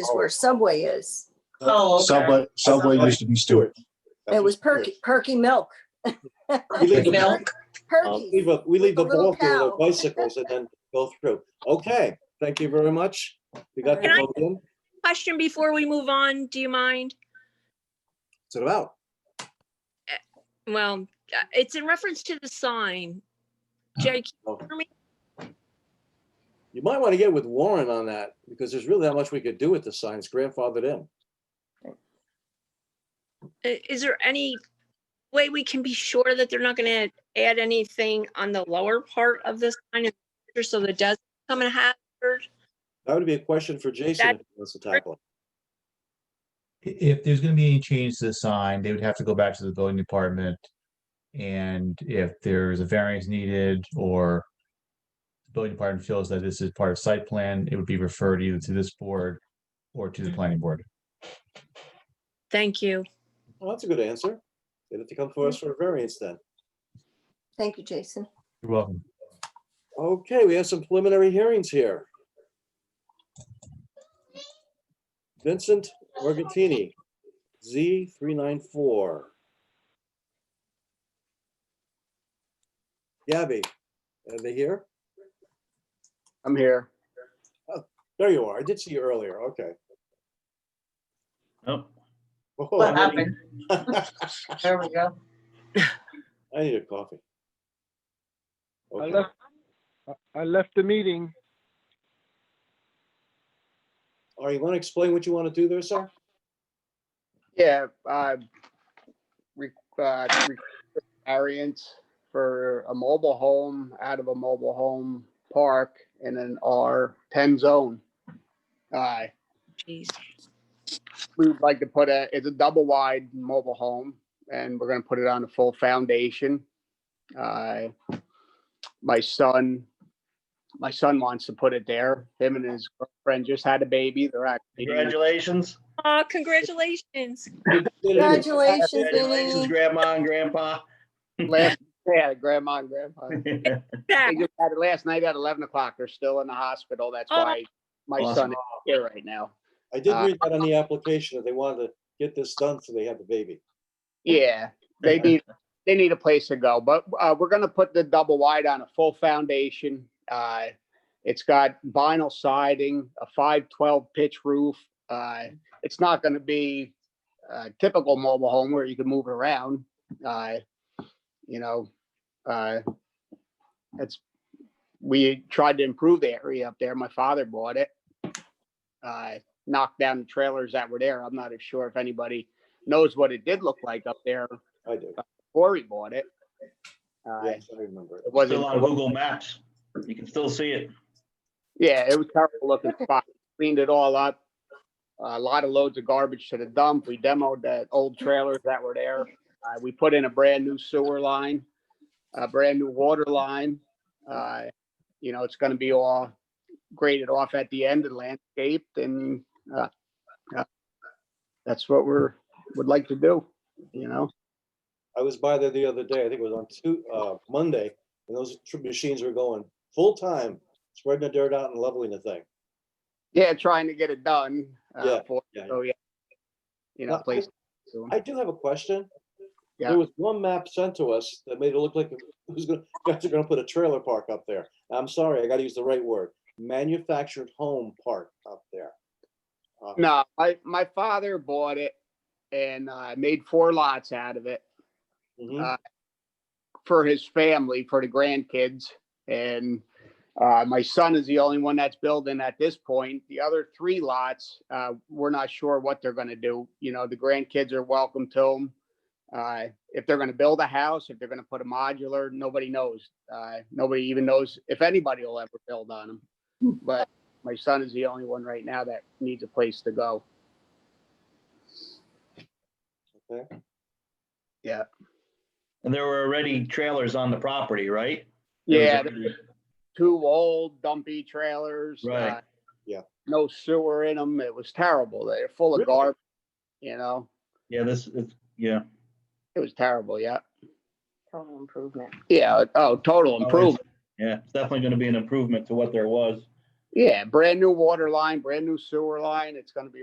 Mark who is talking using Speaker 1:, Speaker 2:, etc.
Speaker 1: is where Subway is.
Speaker 2: Uh,
Speaker 3: Oh, okay.
Speaker 4: Subway, Subway used to be Stewart.
Speaker 1: It was Perky, Perky Milk.
Speaker 2: We leave the-
Speaker 3: Milk.
Speaker 2: We
Speaker 1: Perky.
Speaker 2: leave a- Um, we leave the
Speaker 1: With a little
Speaker 2: ball
Speaker 1: cow.
Speaker 2: field of bicycles and then go through. Okay, thank you very much. We got the
Speaker 5: Can I-
Speaker 2: vote in.
Speaker 5: question before we move on, do you mind?
Speaker 2: What's it about?
Speaker 5: Well, uh, it's in reference to the sign. Jake,
Speaker 2: You might want to get with Warren on that because there's really not much we could do with the signs grandfathered in.
Speaker 5: i- uh, is there any way we can be sure that they're not gonna add anything on the lower part of this sign in the future so that it does become a hazard?
Speaker 2: That would be a question for Jason if he wants to tackle. it.
Speaker 6: i- if there's gonna be any change to the sign, they would have to go back to the building department. And if there's a variance needed or the building department feels that this is part of site plan, it would be referred either to this board or to the planning board.
Speaker 5: Thank you.
Speaker 2: Well, that's a good answer. They'd have to come for us for a variance then.
Speaker 1: Thank you, Jason.
Speaker 6: You're welcome.
Speaker 2: Okay, we have some preliminary hearings here. Vincent Organtini, Z three nine four. Gabby, are they here?
Speaker 3: I'm here.
Speaker 2: There you are. I did see you earlier. Okay.
Speaker 7: Oh,
Speaker 2: Oh,
Speaker 3: What happened? There we go.
Speaker 2: I need a coffee.
Speaker 8: I
Speaker 2: Okay.
Speaker 8: left, I- I left the meeting.
Speaker 2: Are you want to explain what you want to do there, sir?
Speaker 3: Yeah, uh, re- uh, re- variance for a mobile home out of a mobile home park in an R ten zone. Uh,
Speaker 5: Jeez.
Speaker 3: we would like to put a, it's a double wide mobile home and we're gonna put it on a full foundation. Uh, My son, my son wants to put it there. Him and his girlfriend just had a baby. They're actually.
Speaker 7: congratulations.
Speaker 5: Aw, congratulations.
Speaker 1: Congratulations,
Speaker 7: Congratulations,
Speaker 1: Vinny.
Speaker 7: Grandma and Grandpa.
Speaker 3: Last, yeah, grandma and grandpa. They
Speaker 5: Zach,
Speaker 3: just had it last night at eleven o'clock. They're still in the hospital. That's
Speaker 5: Oh.
Speaker 3: why my son is here right now.
Speaker 2: I did read that on the application that they wanted to get this done so they had the baby.
Speaker 3: Yeah, they need, they need a place to go, but, uh, we're gonna put the double wide on a full foundation. Uh, it's got vinyl siding, a five twelve pitch roof. Uh, it's not gonna be a typical mobile home where you can move around. Uh, you know, uh, it's, we tried to improve the area up there. My father bought it. Uh, knocked down the trailers that were there. I'm not as sure if anybody knows what it did look like up there
Speaker 2: I do.
Speaker 3: before he bought it. Uh,
Speaker 2: Yes, I remember it.
Speaker 3: It wasn't,
Speaker 7: Still on Google Maps. You can still see it.
Speaker 3: yeah, it was terrible looking spot. Cleaned it all up. A lot of loads of garbage to the dump. We demoed the old trailers that were there. Uh, we put in a brand new sewer line, a brand new water line. Uh, you know, it's gonna be all graded off at the end and landscaped and, uh, uh, that's what we're, would like to do, you know?
Speaker 2: I was by there the other day, I think it was on two, uh, Monday, and those tr- machines were going full time, spreading the dirt out and leveling the thing.
Speaker 3: Yeah, trying to get it done. uh,
Speaker 2: Yeah,
Speaker 3: for-
Speaker 2: yeah, yeah.
Speaker 3: So, yeah. You know,
Speaker 2: Now,
Speaker 3: please.
Speaker 2: I do have a question.
Speaker 3: Yeah.
Speaker 2: There was one map sent to us that made it look like it was gonna, guys are gonna put a trailer park up there. I'm sorry, I gotta use the right word, manufactured home park up there. Uh,
Speaker 3: No, my, my father bought it and, uh, made four lots out of it
Speaker 2: mhm.
Speaker 3: Uh, for his family, for the grandkids. And, uh, my son is the only one that's building at this point. The other three lots, uh, we're not sure what they're gonna do. You know, the grandkids are welcome to them. Uh, if they're gonna build a house, if they're gonna put a modular, nobody knows. Uh, nobody even knows if anybody will ever build on them. But my son is the only one right now that needs a place to go.
Speaker 7: And there were already trailers on the property, right? There was
Speaker 3: Yeah,
Speaker 7: already-
Speaker 3: two old dumpy trailers.
Speaker 7: Right.
Speaker 3: uh,
Speaker 2: Yeah.
Speaker 3: No sewer in them. It was terrible. They're full of
Speaker 2: Really?
Speaker 3: garbage, you know,
Speaker 7: Yeah, this is, yeah.
Speaker 3: it was terrible, yeah.
Speaker 9: Total improvement.
Speaker 3: Yeah, oh, total
Speaker 7: Oh, it's-
Speaker 3: improvement.
Speaker 7: Yeah, it's definitely gonna be an improvement to what there was.
Speaker 3: Yeah, brand new water line, brand new sewer line. It's gonna be